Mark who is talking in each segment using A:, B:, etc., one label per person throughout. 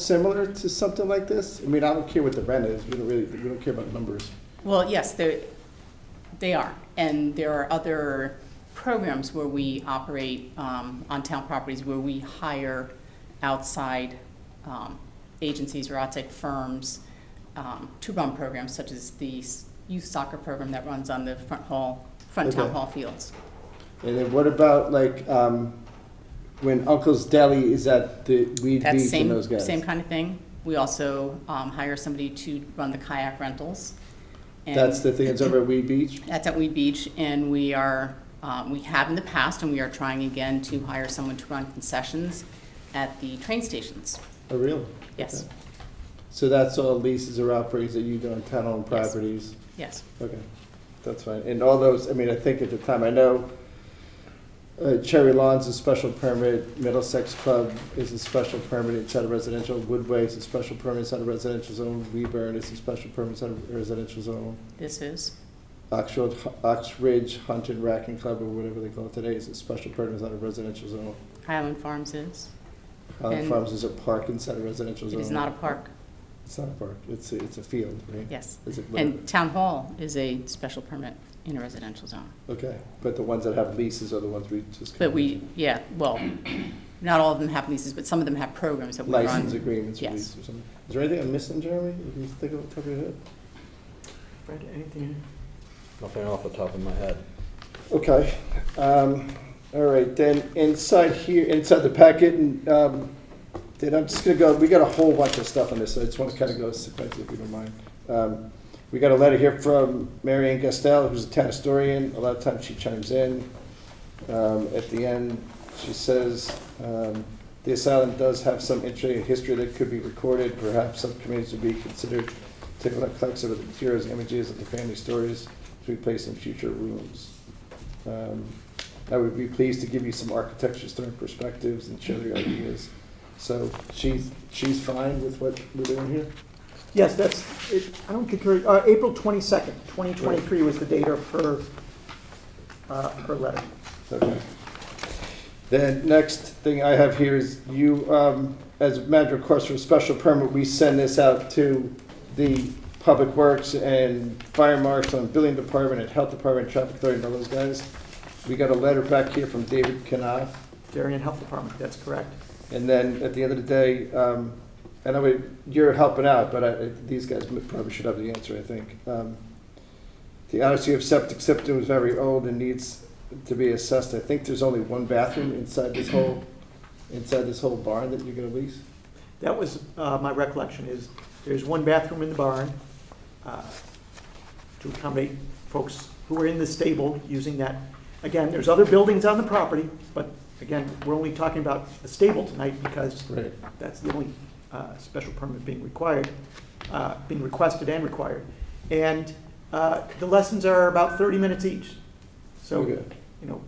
A: similar to something like this? I mean, I don't care what the rent is, we don't really, we don't care about numbers.
B: Well, yes, they, they are. And there are other programs where we operate um, on town properties where we hire outside um, agencies or outside firms um, to run programs such as the s- youth soccer program that runs on the front hall, front town
A: Okay.
B: hall fields.
A: And then what about like, um, when Uncle's Deli is at the Weed
B: That's
A: Beach and those
B: same,
A: guys?
B: same kind of thing. We also um, hire somebody to run the kayak rentals. and-
A: That's the thing that's over at Weed Beach?
B: That's at Weed Beach, and we are, um, we have in the past, and we are trying again to hire someone to run concessions at the train stations.
A: Oh, really?
B: Yes,
A: Okay. So that's all leases or operates that you do on town-owned
B: Yes.
A: properties?
B: yes.
A: Okay, that's fine. And all those, I mean, I think at the time, I know uh, Cherry Lawn's a special permit, Middlesex Club is a special permit inside a residential, Woodway is a special permit inside a residential zone, Weburn is a special permit inside a residential zone,
B: This is,
A: Oxford, Oxridge Hunt and Racking Club, or whatever they call it today, is a special permit inside a residential zone.
B: Highland Farms is.
A: Highland
B: And-
A: Farms is a park inside a residential
B: It
A: zone.
B: is not a park,
A: It's not a park, it's, a- it's a field, right?
B: yes.
A: Is it-
B: And Town Hall is a special permit in a residential zone.
A: Okay, but the ones that have leases are the ones we just.
B: But we, yeah, well, not all of them have leases, but some of them have programs that we run.
A: license agreements
B: Yes.
A: released or something. Is there anything I'm missing, Jeremy? You can think of it, top of your head.
C: Fred, anything?
D: Nothing off the top of my head.
A: Okay, um, all right, then inside here, inside the packet, and, um, then I'm just gonna go, we got a whole bunch of stuff on this, so I just wanna kinda go sequentially, if you don't mind. Um, we got a letter here from Mary Ann Gastel, who's a town historian, a lot of times she chimes in. Um, at the end, she says, um, the asylum does have some interesting history that could be recorded, perhaps subcommittees would be considered to collect some of the materials, images of the family stories to be placed in future rooms. Um, I would be pleased to give you some architecture historic perspectives and share your ideas. So she's, she's fine with what we're doing here?
C: Yes, that's, it- I don't think, her- uh, April 22nd, 2023 was the date of her, uh, her letter.
A: Okay. Then next thing I have here is you, um, as a matter of course, for a special permit, we send this out to the Public Works and Fire Marshal and Building Department and Health Department, Traffic Authority, and all those guys. We got a letter back here from David Knopf,
C: Darien Health Department, that's correct.
A: And then at the end of the day, um, and I would, you're helping out, but I, these guys probably should have the answer, I think. Um, the Odyssey of septic system is very old and needs to be assessed. I think there's only one bathroom inside this whole, inside this whole barn that you're gonna lease.
C: That was, uh, my recollection is, there's one bathroom in the barn uh, to accommodate folks who are in the stable using that. Again, there's other buildings on the property, but again, we're only talking about the stable tonight because
A: Right.
C: That's the only uh, special permit being required, uh, being requested and required. And uh, the lessons are about 30 minutes each. So,
A: Okay.
C: you know,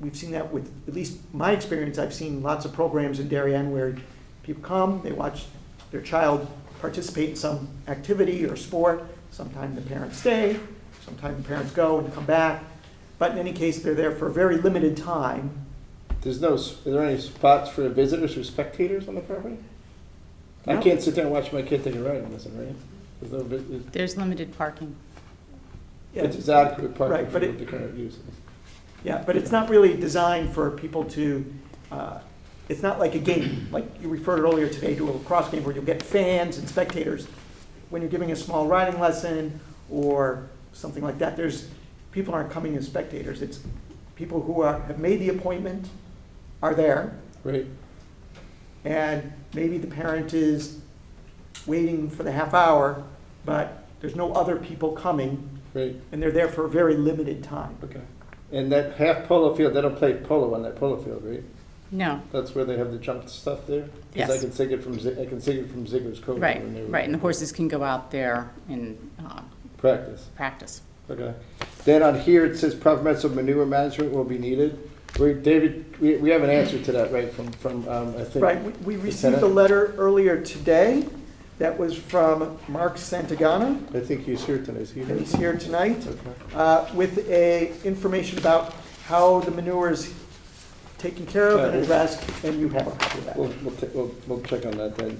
C: we've seen that with, at least my experience, I've seen lots of programs in Darien where people come, they watch their child participate in some activity or sport. Sometimes the parents stay, sometimes the parents go and come back. But in any case, they're there for a very limited time.
A: There's no, s- are there any spots for visitors or spectators on the property? I
C: No.
A: can't sit there and watch my kid take a ride in this, right? There's no, vi-
B: There's limited parking.
A: it's it's adequate parking
C: Right,
A: for
C: but it-
A: the current use.
C: Yeah, but it's not really designed for people to, uh, it's not like a game, like you referred earlier today to a lacrosse game where you'll get fans and spectators. When you're giving a small riding lesson or something like that, there's, people aren't coming as spectators. It's people who are, have made the appointment, are there,
A: Right,
C: and maybe the parent is waiting for the half hour, but there's no other people coming,
A: right.
C: and they're there for a very limited time.
A: Okay. And that half polo field, they don't play polo on that polo field, right?
B: No,
A: That's where they have the jump stuff there? Because I
B: Yes.
A: can see it from, Zi- I can see it from Ziggler's Cove.
B: right,
A: when they were-
B: right, and the horses can go out there and uh,
A: Practice,
B: practice.
A: okay. Then on here, it says proper methods of manure management will be needed. We, David, we, we have an answer to that, right, from, from, um, I think.
C: Right, we- we received a
A: Lieutenant?
C: letter earlier today that was from Mark Santagana,
A: I think he's here tonight, is he
C: and
A: here?
C: he's here tonight,
A: Okay.
C: uh, with a, information about how the manure is taken care of and
A: Uh,
C: addressed, and you have a copy of that.
A: We'll, we'll, ta- we'll, we'll check on that then.